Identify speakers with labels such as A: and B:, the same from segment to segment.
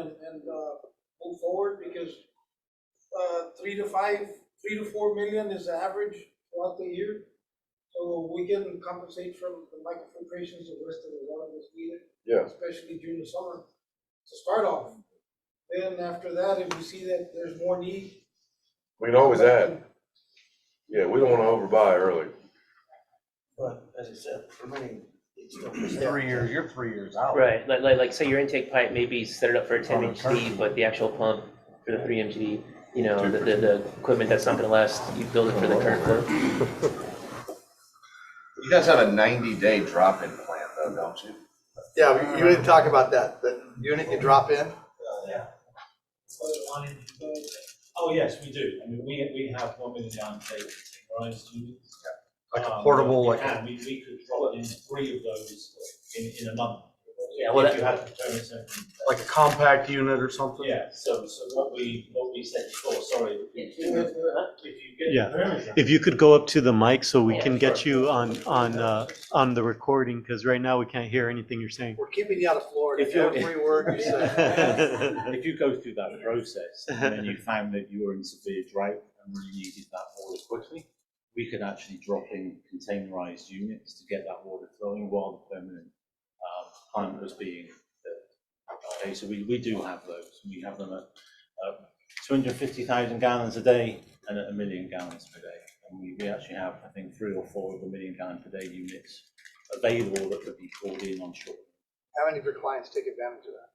A: uh, forward because uh, three to five, three to four million is the average throughout the year. So we can compensate from the microfiltrations and rest of the water that's needed.
B: Yeah.
A: Especially during the summer to start off. Then after that, if we see that there's more need.
B: We can always add. Yeah, we don't wanna overbuy early.
C: But as I said, permitting, it's still.
D: Three years, you're three years out.
E: Right, like, like, like, say your intake pipe maybe set it up for a ten
D: On a
E: MGD, but the actual pump for the three MGD, you know, the, the,
B: 2%.
E: the equipment that's not gonna last, you build it for
B: Oh.
E: the current flow.
F: You guys have a ninety day drop in plan though, don't you?
G: Yeah, we- you didn't talk about that, that unit you drop in,
H: Oh, yes, we do. I mean, we, we have one million gallon tank containerized units.
D: Like a
H: Um,
D: portable,
H: we
D: like a-
H: can. We, we could drop in three of those in, in a month.
E: Yeah, well,
H: If you had to turn it over.
D: Like a compact unit or something?
H: Yeah, so, so what we, what we said before, sorry. If you get
I: Yeah.
H: the permit,
I: If you could go up to the mic so we
E: Yeah,
I: can get
H: sure.
I: you on, on, uh, on the recording, because right now we can't hear anything you're saying.
G: we're keeping you out of Florida,
D: If you-
G: every word you say.
D: If you go through that process and then you found that you were in severe drought and really needed that water quickly, we could actually drop in containerized units to get that water flowing while the permanent um, plant was being built. Okay, so we, we do have those. We have them at uh, two hundred fifty thousand gallons a day and at a million gallons per day. And we, we actually have, I think, three or four of the million gallon per day units available that could be called in on shore.
G: How many of your clients take advantage of that?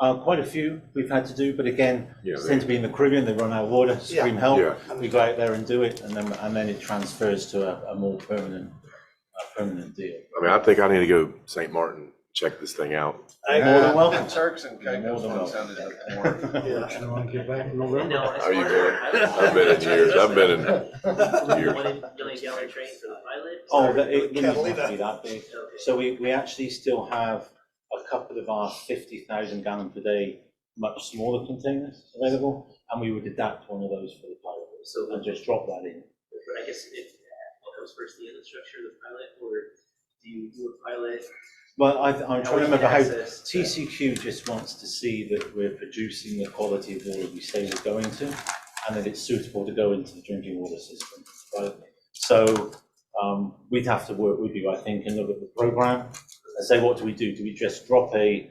D: Uh, Quite a few we've had to do, but again,
B: Yeah, they-
D: tend to be in the Caribbean, they run out of water, scream help.
B: Yeah.
D: We go out there and do it, and then, and then it transfers to a, a more permanent, a permanent deal.
B: I mean, I think I need to go St. Martin, check this thing out.
D: You're More than welcome.
F: Turks and Caicos one sounded like more.
G: Yeah.
B: How you doing? I've been in years, I've been in years.
E: million gallon train for the pilot?
D: Oh, that, it wouldn't
G: Can't believe
D: have to be that big. So we, we actually still have a couple of our fifty thousand gallon per day, much smaller containers available, and we would adapt one of those for the pilot,
E: So
D: and just drop that in.
E: I guess if, what comes first, the infrastructure, the pilot, or do you do a pilot?
D: Well, I, I'm trying to remember how TCQ just wants to see that we're producing the quality of water we say we're going to, and that it's suitable to go into the drinking water system, right? So, um, we'd have to work with you, I think, and look at the program, and say, what do we do? Do we just drop a, a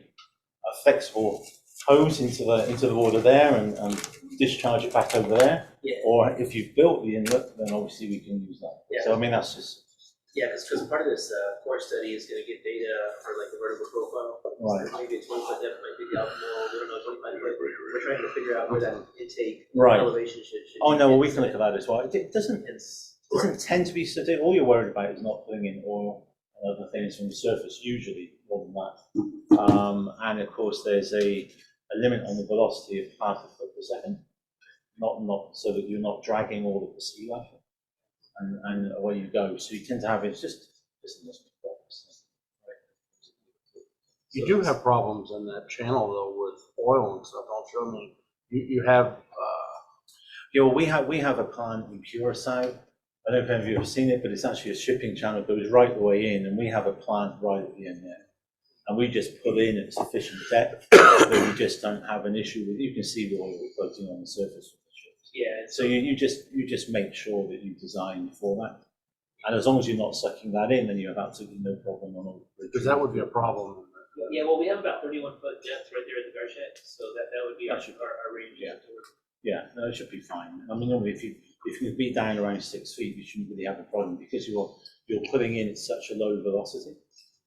D: flexible hose into the, into the water there and, and discharge it back over there?
E: Yeah.
D: Or if you've built the inlet, then obviously we can use that. So I mean, that's just,
E: Yeah, because, part of this, uh, core study is gonna get data for like the vertical profile.
D: right,
E: Maybe it's one foot depth, maybe the optimal, we don't know, twenty-five foot. We're trying to figure out where that intake
D: right.
E: elevation should, should.
D: Oh, no, well,
E: be.
D: we can look at that as well. It- It doesn't,
E: It's-
D: doesn't tend to be, so all you're worried about is not putting in oil and other things from the surface, usually, more than that. Um, and of course, there's a, a limit on the velocity of half a foot per second, not, not, so that you're not dragging all of the sea level. And, and away you go, so you tend to have, it's just, it's in this box.
J: You do have problems in that channel though with oil and stuff, don't you? I mean, you, you have, uh,
D: Yeah, well, we have, we have a plant in Curacao. I don't know if any of you have seen it, but it's actually a shipping channel, that goes right the way in, and we have a plant right at the end there. And we just pull in at sufficient depth, that we just don't have an issue with, you can see the oil floating on the surface of the ship.
E: Yeah,
D: So you, you just, you just make sure that you design for that. And as long as you're not sucking that in, then you have absolutely no problem on all.
J: because that would be a problem.
E: yeah, well, we have about thirty-one foot depth right there at the Garchet, so that, that would be our,
D: That should-
E: our our range.
D: yeah. Yeah, no, it should be fine. I mean, normally if you, if you be down around six feet, you shouldn't really have a problem because you're, you're putting in at such a low velocity.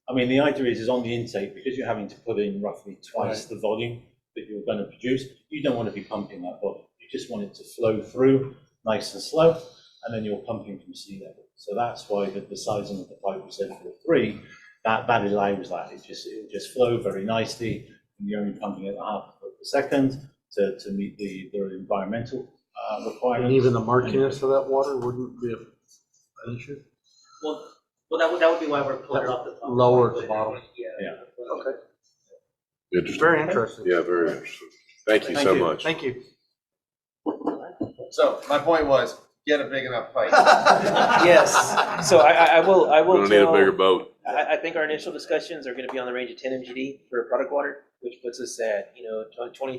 D: I mean, the idea is, is on the intake, because you're having to put in roughly twice the volume that you're going to produce, you don't want to be pumping that volume. You just want it to flow through nice and slow, and then you're pumping from sea level. So that's why the, the sizing of the pipe we said for three, that, that allows that. It just, it'll just flow very nicely, and you're only pumping at a half a foot per second to, to meet the, the environmental uh,
J: And
D: requirements.
J: even the murkiness of that water wouldn't be a- an issue.
E: Well, well, that would, that would be why we're pulling it off the. top.
J: Lower the bottom.
E: Yeah.
D: Yeah.
J: Okay.
B: Interesting.
J: Very interesting.
B: Yeah, very interesting. Thank you
D: Thank
B: so
D: you.
B: much.
J: Thank you.
F: So my point was, get a big enough pipe.
E: Yes, so I, I, I will, I will
B: Gonna need a
E: tell,
B: bigger boat.
E: I, I think our initial discussions are gonna be on the range of ten MGD for product water, which puts us at, you know, twenty,